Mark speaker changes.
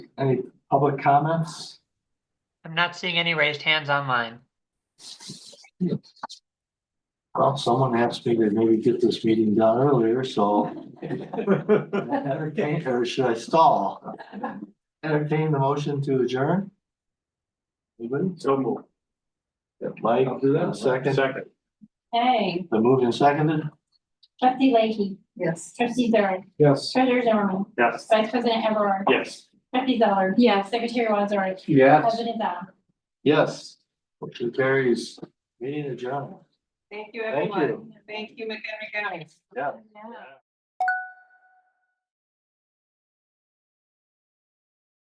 Speaker 1: Any public comments?
Speaker 2: I'm not seeing any raised hands online.
Speaker 1: Well, someone asked me to maybe get this meeting done earlier, so entertain, or should I stall? Entertain the motion to adjourn? Anybody?
Speaker 3: So move.
Speaker 1: Mike,
Speaker 3: I'll do that.
Speaker 1: second,
Speaker 3: Second.
Speaker 4: Hey,
Speaker 1: the move and seconded?
Speaker 4: trustee Lakey,
Speaker 5: Yes.
Speaker 4: trustee Zerri,
Speaker 3: Yes.
Speaker 4: treasurer Zimmerman,
Speaker 3: Yes.
Speaker 4: vice president Everard,
Speaker 3: Yes.
Speaker 4: trustee Zeller. Yes. Secretary Wazorek,
Speaker 3: Yes.
Speaker 4: president Down.
Speaker 1: Yes. Motion carries. Meeting adjourned.
Speaker 5: Thank you,
Speaker 1: Thank you.
Speaker 5: everyone. Thank you, McHenry County.
Speaker 1: Yeah.
Speaker 4: Yeah.
Speaker 3: Yeah.